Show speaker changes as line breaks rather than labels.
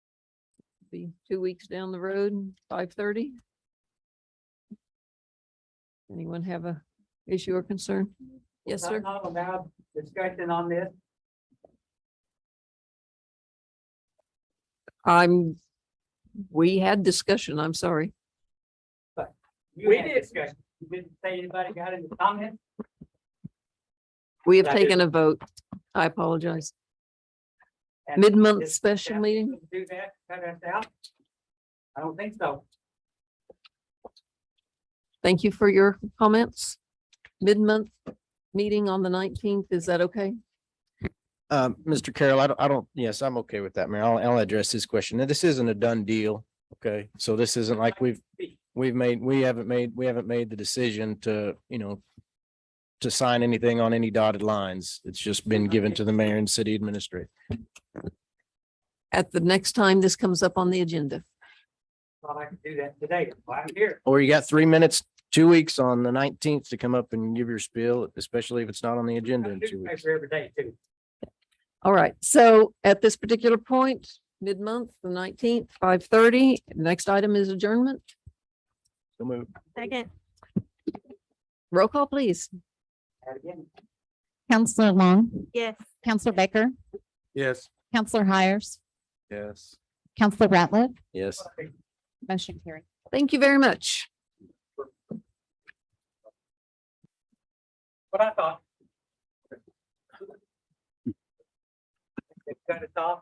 be two weeks down the road, five thirty. Anyone have a issue or concern? Yes, sir.
Not allowed discussion on this.
I'm, we had discussion, I'm sorry.
We did discussion. You didn't say anybody got any comments?
We have
I did.
taken a vote. I apologize.
And
Mid-month
is
special
staff
meeting,
gonna Do that, cut us out? I don't think so.
thank you for your comments. Mid-month meeting on the nineteenth, is that okay?
Uh, Mr. Carroll, I don't, I don't, yes, I'm okay with that, Mayor. I'll, I'll address this question. Now, this isn't a done deal, okay? So this isn't like we've, we've made, we haven't made, we haven't made the decision to, you know, to sign anything on any dotted lines. It's just been given to the mayor and city administrator.
At the next time this comes up on the agenda.
Thought I could do that today. Well, I'm here.
Or you got three minutes, two weeks on the nineteenth to come up and give your spiel, especially if it's not on the
I
agenda in two weeks.
newspaper every day too.
All right, so at this particular point, mid-month, the nineteenth, five thirty, next item is adjournment.
So move.
Second.
Roll call, please.
And again,
Counselor Long,
Yes.
Counselor Baker,
Yes.
Counselor Hires,
Yes.
Counselor Ratliff,
Yes.
motion carried.
Thank you very much.
what I thought. They cut us off.